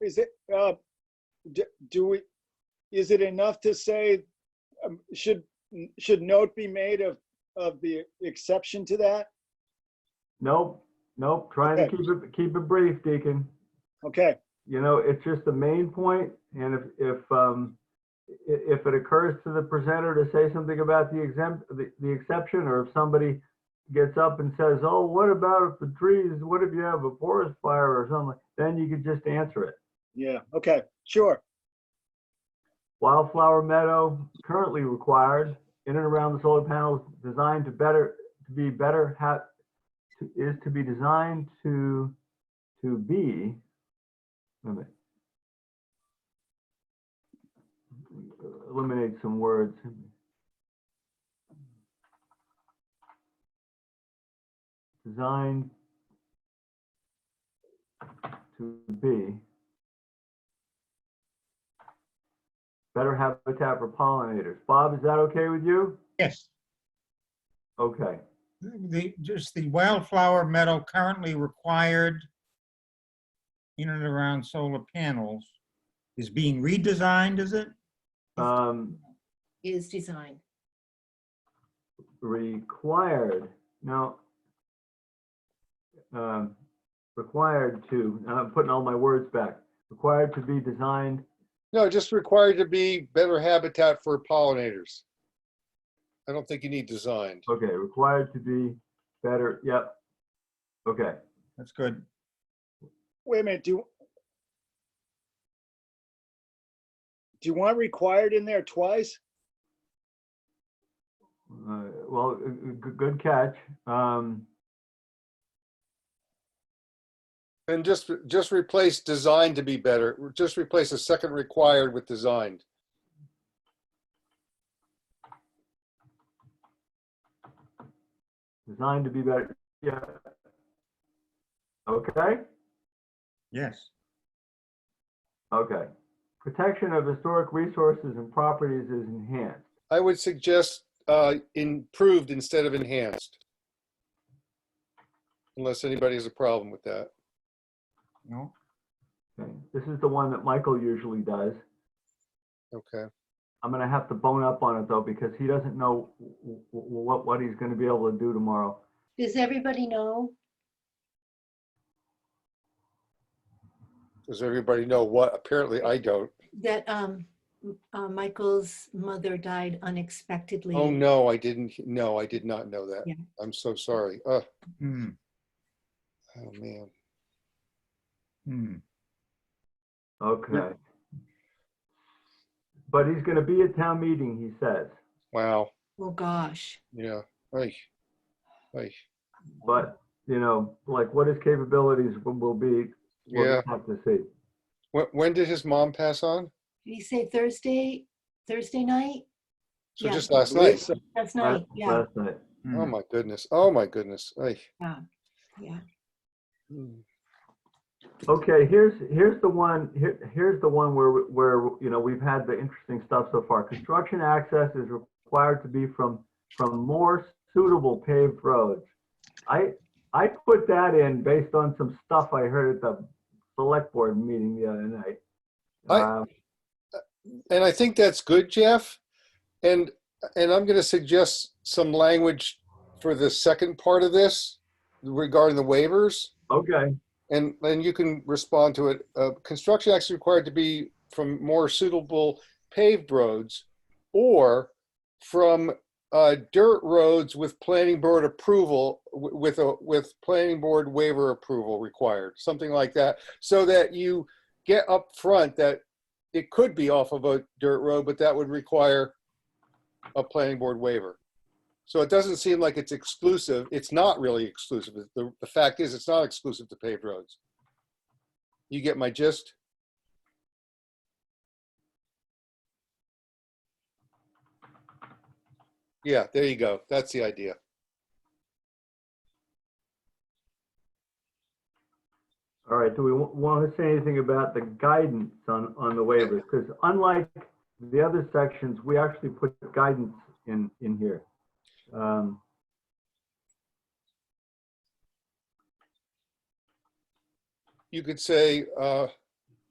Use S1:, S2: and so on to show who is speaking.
S1: Is it, uh, d- do we, is it enough to say, um, should, should note be made of, of the exception to that?
S2: Nope, nope, trying to
S1: Okay.
S2: keep it, keep it brief, Deacon.
S1: Okay,
S2: You know, it's just the main point, and if, if, um, i- if it occurs to the presenter to say something about the exempt, the, the exception, or if somebody gets up and says, oh, what about if the trees, what if you have a forest fire or something, then you could just answer it.
S1: yeah, okay, sure,
S2: Wildflower meadow currently required in and around the solar panels designed to better, to be better ha- to- is to be designed to, to be. wait a minute. Eliminate some words. Designed to be. better habitat for pollinators. Bob, is that okay with you?
S3: Yes,
S2: Okay,
S3: the, just the wildflower meadow currently required in and around solar panels is being redesigned, is it?
S2: um,
S4: is design.
S2: required, now, um, required to, now I'm putting all my words back, required to be designed,
S5: No, just required to be better habitat for pollinators. I don't think you need designed.
S2: okay, required to be better, yep. Okay,
S3: That's good.
S1: wait a minute, do. Do you want required in there twice?
S2: uh, well, uh, uh, g- good catch. Um,
S5: And just, just replace designed to be better, just replace the second required with designed.
S2: designed to be better, yeah. Okay?
S3: Yes.
S2: Okay. Protection of historic resources and properties is enhanced.
S5: I would suggest uh, improved instead of enhanced. Unless anybody has a problem with that.
S3: No?
S2: Okay. This is the one that Michael usually does.
S5: Okay.
S2: I'm gonna have to bone up on it though, because he doesn't know w- w- w- what, what he's gonna be able to do tomorrow.
S4: Does everybody know?
S5: Does everybody know what? Apparently I don't.
S4: that um, M- uh, Michael's mother died unexpectedly.
S5: Oh, no, I didn't. No, I did not know that.
S4: Mm. Yeah.
S5: I'm so sorry. Oh,
S3: Hmm,
S5: oh man.
S3: hmm.
S2: Okay. But he's gonna be at town meeting, he says,
S5: Wow.
S4: Oh, gosh.
S5: Yeah. Oy. Oy.
S2: but, you know, like what his capabilities will- will be, we'll
S5: Yeah.
S2: just have to see.
S5: When, when did his mom pass on?
S4: Did he say Thursday, Thursday night?
S5: So
S4: Yeah.
S5: just last night.
S4: That's
S2: Last
S4: night, yeah,
S2: last night.
S5: Oh
S3: hmm.
S5: my goodness. Oh my goodness. Ay.
S4: yeah.
S5: Mm.
S2: Okay, here's, here's the one, here, here's the one where, where, you know, we've had the interesting stuff so far. Construction access is required to be from, from more suitable paved roads. I, I put that in based on some stuff I heard at the select board meeting the other night.
S5: I-
S2: Um,
S5: And I think that's good, Jeff. And and I'm going to suggest some language for the second part of this regarding the waivers.
S2: Okay,
S5: And then you can respond to it. Uh, construction acts required to be from more suitable paved roads or from uh, dirt roads with planning board approval, w- with a, with planning board waiver approval required, something like that. So that you get up front that it could be off of a dirt road, but that would require a planning board waiver. So it doesn't seem like it's exclusive. It's not really exclusive. The, the fact is, it's not exclusive to paved roads. You get my gist? Yeah, there you go. That's the idea.
S2: all right, do we want to say anything about the guidance on, on the waivers? Because unlike the other sections, we actually put guidance in, in here. Um,
S5: You could say, uh,